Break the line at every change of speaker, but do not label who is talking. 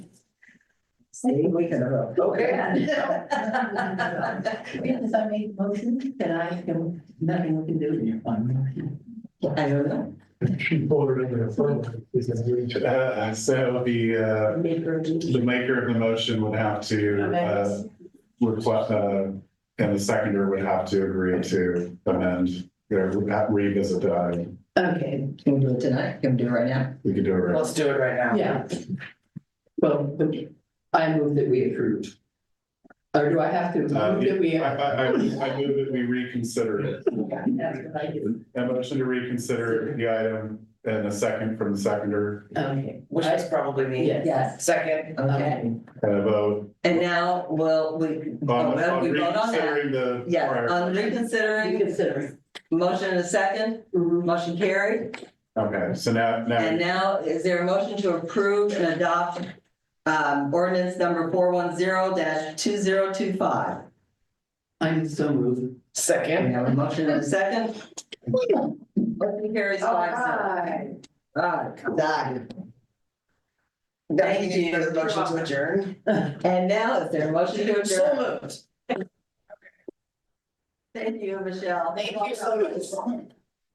See, we can, uh, okay.
Because I made a motion that I can, nothing we can do.
You fine? I don't know.
She voted in the affirmative. Is that right?
Uh, so the, uh, the maker of the motion would have to, uh, request, uh, and the seconder would have to agree to amend, or revisit the item.
Okay,
Can we do it tonight? Can we do it right now?
We could do it right.
Let's do it right now.
yeah. Well, the- I move that we approve. Or do I have to move
Uh,
that we?
I, I, I I move that we reconsider it.
That's what I do.
A motion to reconsider the item and a second from the seconder
Okay,
Which is probably me.
yes.
Yes,
Second,
okay.
and a vote.
And now, will we,
on-
oh, well,
on
we vote on that.
reconsidering the
Yes,
prior-
on
You
reconsidering,
consider.
motion and a second,
Mm-hmm.
motion carried.
Okay, so now,
And now,
now,
is there a motion to approve and adopt um, ordinance number four one zero two zero two five?
I'm so moved.
We
second.
have a motion and a second. Motion carries five zero. All right, done. Thank
For the
you.
motion to adjourn.
And now, is there a motion to
So
adjourn?
moved.
Thank you, Michelle.
Thank you so much.